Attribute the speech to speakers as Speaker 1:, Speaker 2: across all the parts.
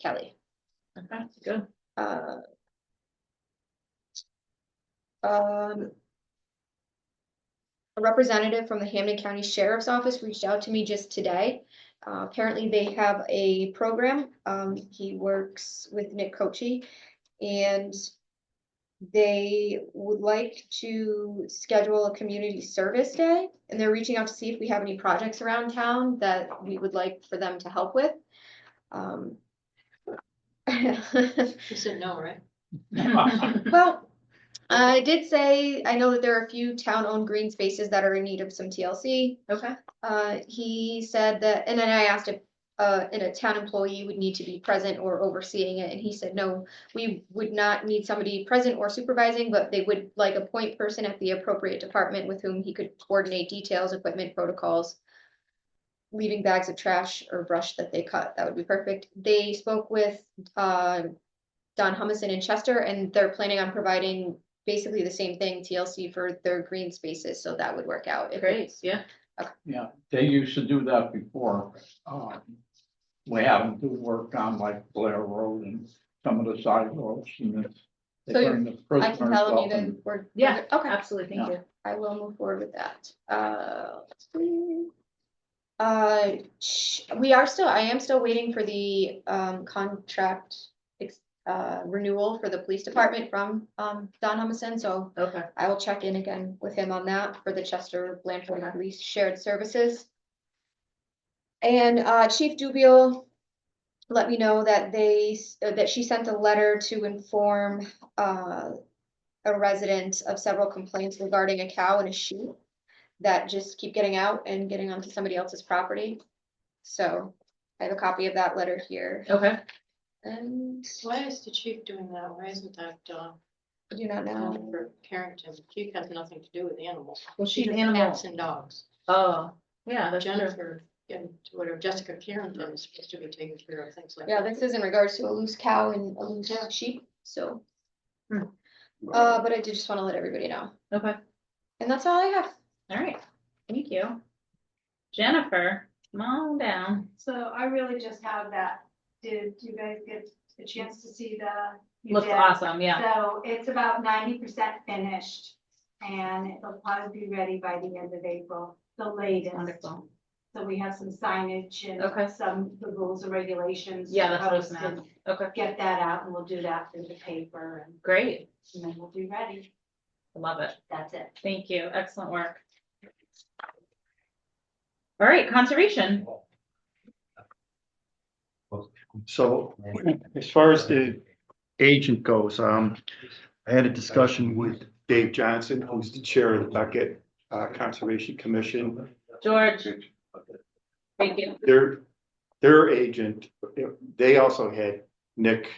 Speaker 1: Kelly.
Speaker 2: Okay, good.
Speaker 1: Uh, Um. A representative from the Hamden County Sheriff's Office reached out to me just today. Uh, apparently they have a program. Um, he works with Nick Cochi and they would like to schedule a community service day and they're reaching out to see if we have any projects around town that we would like for them to help with. Um.
Speaker 2: You said no, right?
Speaker 1: Well, I did say, I know that there are a few town-owned green spaces that are in need of some TLC.
Speaker 2: Okay.
Speaker 1: Uh, he said that, and then I asked if, uh, and a town employee would need to be present or overseeing it, and he said, no, we would not need somebody present or supervising, but they would like a point person at the appropriate department with whom he could coordinate details, equipment, protocols. Leaving bags of trash or brush that they cut, that would be perfect. They spoke with, uh, Don Humison in Chester, and they're planning on providing basically the same thing, TLC for their green spaces, so that would work out. if
Speaker 2: Great,
Speaker 1: it's-
Speaker 2: yeah.
Speaker 3: Yeah, they used to do that before. um, We have them do work on like Blair Road and some of the side roads and it's. They
Speaker 1: So you-
Speaker 3: bring the
Speaker 1: I can
Speaker 3: prisoners
Speaker 1: tell them you
Speaker 3: up
Speaker 1: guys
Speaker 3: and
Speaker 1: were.
Speaker 2: Yeah,
Speaker 1: Okay,
Speaker 2: Absolutely, thank you.
Speaker 1: I will move forward with that. Uh, let's see. Uh, sh- we are still, I am still waiting for the, um, contract. ex- Uh, renewal for the police department from, um, Don Humison, so
Speaker 2: Okay,
Speaker 1: I will check in again with him on that for the Chester Blanford Police Shared Services. And uh, Chief Dubiel let me know that they, s- uh, that she sent a letter to inform uh, a resident of several complaints regarding a cow and a sheep that just keep getting out and getting onto somebody else's property. So I have a copy of that letter here.
Speaker 2: okay.
Speaker 1: And
Speaker 2: Why is the chief doing that? Why isn't that, uh,
Speaker 1: I do not know.
Speaker 2: for Carrington? Chief has nothing to do with animals.
Speaker 4: Well, she's
Speaker 2: She does
Speaker 4: animal.
Speaker 2: cats and dogs.
Speaker 4: Oh, yeah, that's true.
Speaker 2: Jennifer, and whatever, Jessica Carrington is supposed to be taking care of things like.
Speaker 1: Yeah,
Speaker 2: that.
Speaker 1: this is in regards to a loose cow and a loose sheep, so.
Speaker 4: Hmm.
Speaker 1: Uh, but I did just wanna let everybody know,
Speaker 4: Okay,
Speaker 1: and that's all I have.
Speaker 4: all right. Thank you. Jennifer, come on down.
Speaker 5: So I really just have that. Did you guys get a chance to see the? you
Speaker 4: Looks
Speaker 5: did.
Speaker 4: awesome, yeah.
Speaker 5: So it's about ninety percent finished and it'll probably be ready by the end of April, the latest.
Speaker 4: Wonderful.
Speaker 5: So we have some signage
Speaker 4: Okay.
Speaker 5: and some, the rules and regulations.
Speaker 4: Yeah, that's what I was
Speaker 5: proposed,
Speaker 4: gonna
Speaker 5: and
Speaker 4: Okay,
Speaker 5: Get that out and we'll do that through the paper and-
Speaker 4: great.
Speaker 5: and then we'll be ready.
Speaker 4: Love it.
Speaker 5: That's it.
Speaker 4: Thank you. Excellent work. All right, conservation.
Speaker 6: So as far as the agent goes, um, I had a discussion with Dave Johnson, who's the chair of the Beckett uh, Conservation Commission.
Speaker 4: George. Thank you.
Speaker 6: Their, their agent, they also had Nick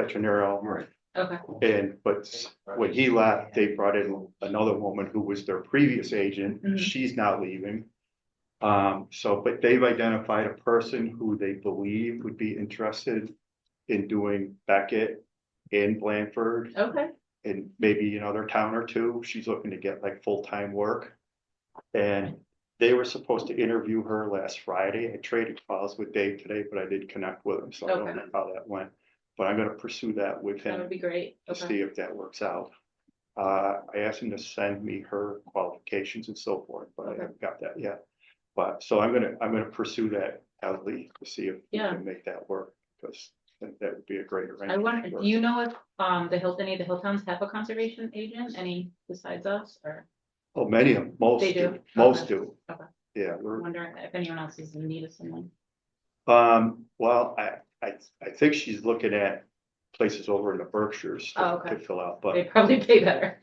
Speaker 6: Petronero. Right.
Speaker 4: Okay,
Speaker 6: And, but when he left, they brought in another woman who was their previous agent.
Speaker 4: Mhm.
Speaker 6: She's now leaving. Um, so, but they've identified a person who they believe would be interested in doing Beckett in Blanford
Speaker 4: okay.
Speaker 6: and maybe another town or two. She's looking to get like full-time work. And they were supposed to interview her last Friday. I traded calls with Dave today, but I did connect with him, so I
Speaker 4: Okay.
Speaker 6: don't know how that went. But I'm gonna pursue that with
Speaker 4: That
Speaker 6: him
Speaker 4: would be great.
Speaker 6: to
Speaker 4: Okay,
Speaker 6: see if that works out. Uh, I asked him to send me her qualifications and so forth, but I
Speaker 4: Okay.
Speaker 6: haven't got that yet. But, so I'm gonna, I'm gonna pursue that at least to see if we
Speaker 4: Yeah.
Speaker 6: can make that work, because that that would be a great
Speaker 4: I
Speaker 6: arrangement.
Speaker 4: wonder,
Speaker 6: for
Speaker 4: do you know if, um, the Hill, any of the Hilltowns have a conservation agent, any besides us, or
Speaker 6: us. Oh, many of, them, most
Speaker 4: They
Speaker 6: do,
Speaker 4: do?
Speaker 6: most
Speaker 4: Okay.
Speaker 6: do.
Speaker 4: Okay.
Speaker 6: Yeah,
Speaker 4: I'm
Speaker 6: we're,
Speaker 4: wondering if anyone else is in need of someone?
Speaker 6: um, well, I, I, I think she's looking at places over in the Berkshires
Speaker 4: Oh,
Speaker 6: to
Speaker 4: okay.
Speaker 6: to fill out, but.
Speaker 4: They probably pay better.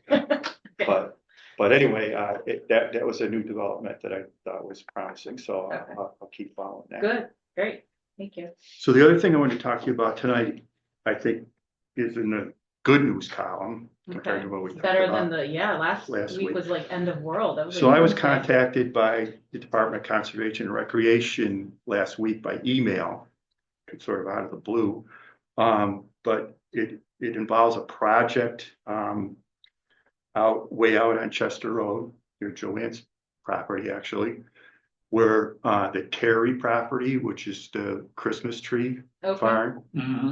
Speaker 6: But, but anyway, uh, it, that, that was a new development that I thought was promising, so I'll-
Speaker 4: Okay.
Speaker 6: I'll, I'll keep following that.
Speaker 4: Good, great, thank you.
Speaker 6: So the other thing I wanted to talk to you about tonight, I think, is in the good news column compared
Speaker 4: Okay,
Speaker 6: to what we talked
Speaker 4: better than
Speaker 6: about.
Speaker 4: the, yeah, last
Speaker 6: last
Speaker 4: week
Speaker 6: week.
Speaker 4: was like end of world. That like
Speaker 6: So I was
Speaker 4: doomsday.
Speaker 6: contacted by the Department of Conservation and Recreation last week by email. It's sort of out of the blue, um, but it, it involves a project, um. Out, way out on Chester Road, near Joanne's property, actually. Where, uh, the Terry property, which is the Christmas tree
Speaker 4: Okay.
Speaker 6: farm,
Speaker 3: Mhm.